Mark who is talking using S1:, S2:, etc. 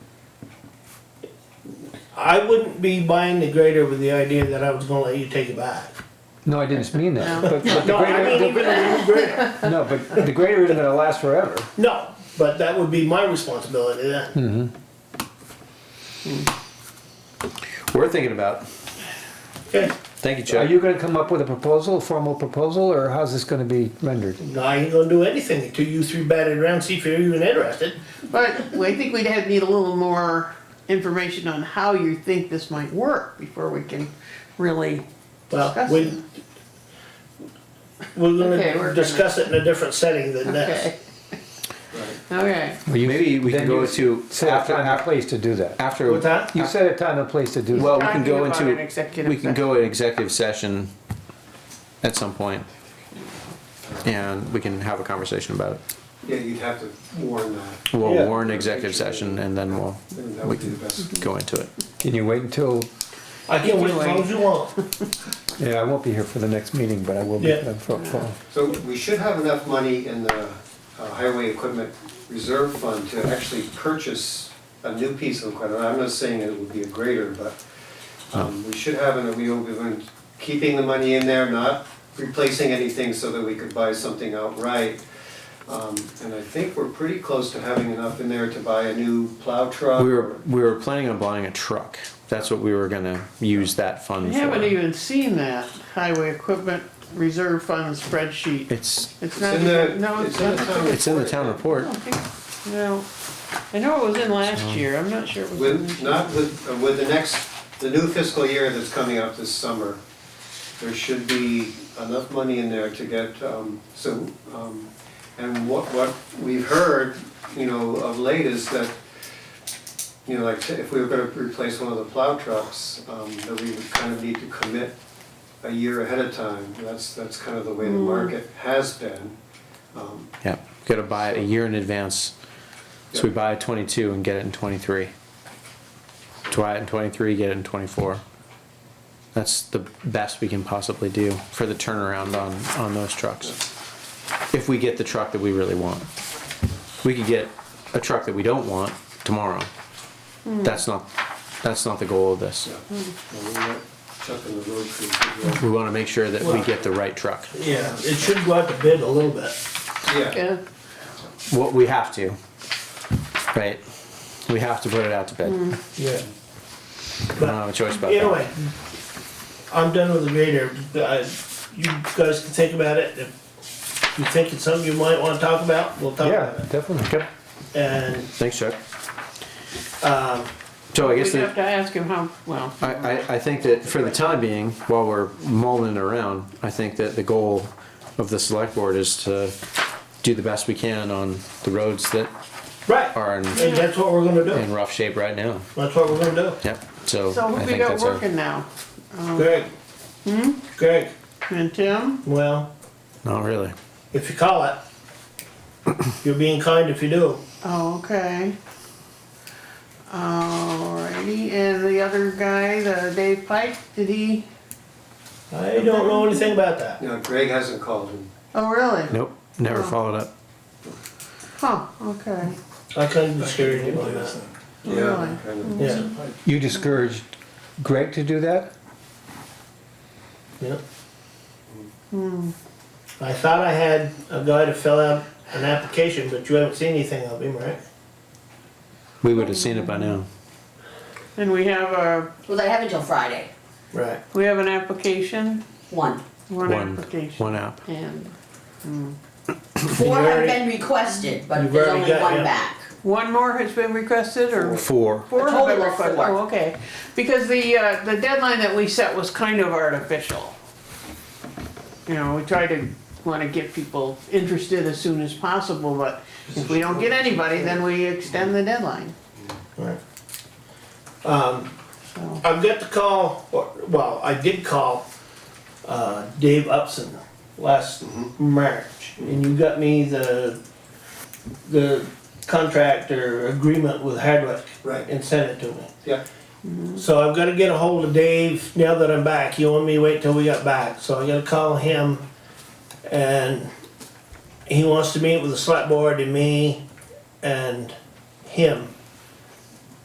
S1: I wouldn't be buying the grader with the idea that I was gonna let you take it back.
S2: No, I didn't mean that.
S3: No.
S2: But, but the
S1: No, I mean
S2: greater,
S1: even a new grader.
S2: the, no, but the greater isn't gonna last forever.
S1: No, but that would be my responsibility
S2: Hmm.
S1: then.
S4: We're thinking about. it.
S1: Okay,
S4: Thank you,
S2: Are
S4: Chuck.
S2: you gonna come up with a proposal, a formal proposal, or how's this gonna be rendered?
S1: no, I ain't gonna do anything until you three bat it around, see if you're even interested.
S3: But I think we'd have, need a little more information on how you think this might work before we can really
S1: Well,
S3: discuss it.
S1: we, we're
S3: Okay, we're
S1: gonna
S3: gonna-
S1: discuss it in a different setting than
S3: Okay.
S1: this.
S3: Okay,
S2: Well, you-
S4: Maybe we
S2: then
S4: can go
S2: you
S4: to
S2: Set a
S4: after
S2: time and place to do that.
S4: after.
S1: What's that?
S2: You set a time and place to do that.
S4: Well, we
S3: Talking
S4: can go
S3: about
S4: into
S3: an executive
S4: we can go in executive session at some point, and we can have a conversation about it.
S5: Yeah, you'd have to warn that.
S4: We'll
S1: Yeah.
S4: warn executive session, and then we'll
S5: And that
S4: we
S5: would be the
S4: can
S5: best.
S4: go into it.
S2: Can you wait until,
S1: I can wait as long as you want.
S2: yeah, I won't be here for the next meeting, but I will be.
S1: Yeah.
S2: uh, for- for-
S5: So we should have enough money in the uh, highway equipment reserve fund to actually purchase a new piece of equipment. I'm not saying it would be a grader, but um, we should have, and we will be doing- keeping the money in there, not replacing anything so that we could buy something outright. Um, And I think we're pretty close to having enough in there to buy a new plow truck.
S4: We were we were planning on buying a truck. That's what we were gonna use that
S3: I
S4: fund
S3: haven't
S4: for.
S3: even seen that highway equipment reserve fund spreadsheet.
S4: It's
S3: It's
S5: It's
S3: not,
S5: in the-
S3: even- no, it's
S5: in the
S3: not.
S5: town
S4: it's in the
S5: report.
S4: town
S3: I
S4: report.
S3: don't think- No, I know it was in last year, I'm not sure it was in
S5: With,
S3: this
S5: not with, uh, with the next, the new fiscal year that's coming up this summer, there should be enough money in there to get, um, so, um, and what, what we've heard, you know, of late is that, you know, like, if we were gonna replace one of the plow trucks, um, that we would kind of need to commit a year ahead of time, that's, that's kind of the way the market has been. Um,
S4: Yeah, gotta buy it a year in advance. So we buy a twenty-two and get it in twenty-three. Buy it in twenty-three, get it in twenty-four. That's the best we can possibly do for the turnaround on, on those trucks. If we get the truck that we really want. We could get a truck that we don't want tomorrow. That's not, that's not the goal of this.
S5: yeah, Well, we got Chuck and the road crew to do it.
S4: We wanna make sure that we get the right truck.
S1: Yeah, it should go out to bid a little bit.
S5: Yeah,
S3: Yeah,
S4: What, we have to. Right? We have to put it out to bid.
S1: Yeah.
S4: I don't have a choice about that.
S1: Anyway, I'm done with the grader. I- You guys can think about it. If you think it's something you might wanna talk about, we'll talk
S2: Yeah,
S1: about it.
S2: definitely.
S1: And,
S4: Thanks, Chuck.
S1: um,
S4: So I
S3: we'd
S4: guess
S3: have
S4: that,
S3: to ask him how, well,
S4: I, I, I think that for the time being, while we're mulling it around, I think that the goal of the select board is to do the best we can on the roads that
S1: right,
S4: are in,
S1: and that's what we're gonna
S4: in
S1: do.
S4: rough shape right now.
S1: That's what we're gonna do.
S4: Yep, so
S3: so
S4: Oh, I
S3: who we
S4: think
S3: got
S4: that's our.
S3: working now?
S1: Greg. Hmm? Greg,
S3: And Tim?
S1: well,
S4: Not really.
S1: if you call it, you're being kind if you do.
S3: Oh, okay. Alrighty, and the other guy, the Dave Pike, did he,
S1: I don't know anything about that.
S5: no, Greg hasn't called him.
S3: oh, really?
S4: Nope, never followed up.
S3: Huh, okay.
S1: I couldn't discourage you on that.
S3: Really?
S5: Kind of.
S1: Yeah,
S2: You discouraged Greg to do that?
S1: yeah. I thought I had a guy to fill out an application, but you haven't seen anything of him, right?
S4: We would have seen it by now.
S3: And we have a,
S6: Well, they have until Friday,
S1: Right.
S3: we have an application,
S6: one.
S3: one
S4: One,
S3: application.
S4: one app.
S3: And
S6: Four have
S1: already-
S6: been requested, but
S1: You've
S6: there's
S1: already
S6: only
S1: got, yeah.
S6: one back.
S3: one more has been requested or?
S4: Four.
S3: Four have been
S6: total of
S3: requested,
S6: four.
S3: oh, okay. Because the, uh, the deadline that we set was kind of artificial. You know, we try to, wanna get people interested as soon as possible, but if we don't get anybody, then we extend the deadline,
S1: Right. Um,
S3: so.
S1: I've got to call, or- well, I did call, uh, Dave Upson last March, and you got me the, the contract or agreement with Hardwick.
S5: Right.
S1: And sent it to me.
S5: Yeah,
S1: So I've gotta get a hold of Dave now that I'm back, he wanted me to wait till we got back, so I gotta call him. And he wants to meet with the select board and me and him